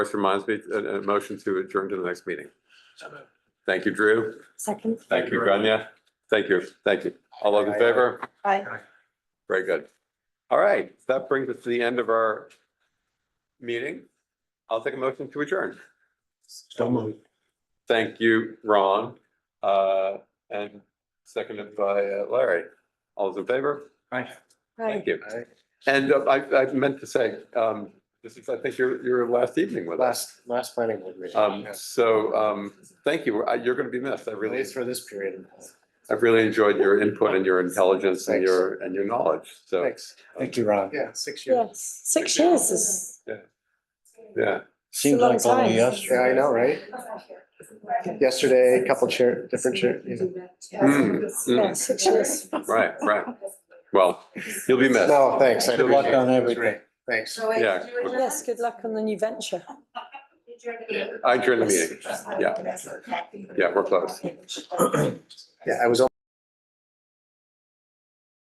Which reminds me, a, a motion to adjourn to the next meeting. Thank you, Drew. Second, Thank you, Grania. Thank you, thank you. All those in favor? aye. Very good. All right, that brings us to the end of our meeting. I'll take a motion to adjourn. So moved. Thank you, Ron, uh, and seconded by uh, Larry. All those in favor? Aye. Aye. Thank you. And uh, I, I meant to say, um, this is, I think, your, your last evening with us. Last, last planning board meeting. Um, yes. so, um, thank you. Uh, You're gonna be missed. I At really, least for this period. of time. I've really enjoyed your input and your intelligence and Thanks. your, and your knowledge. So, Thanks. Thank you, Ron. Yeah, six years. Yes, six years is, yeah. Seems like only Yeah, I know, right? Yesterday, a couple chair, different chair, you know. Mm, yeah, mm, six years. Right, right. Well, you'll be missed. No, thanks. I Good luck appreciate it. on It was everything. great. Thanks. Yeah. Yes, good luck on the new venture. I adjourn the meeting. Yeah. Yeah, we're close. Yeah, I was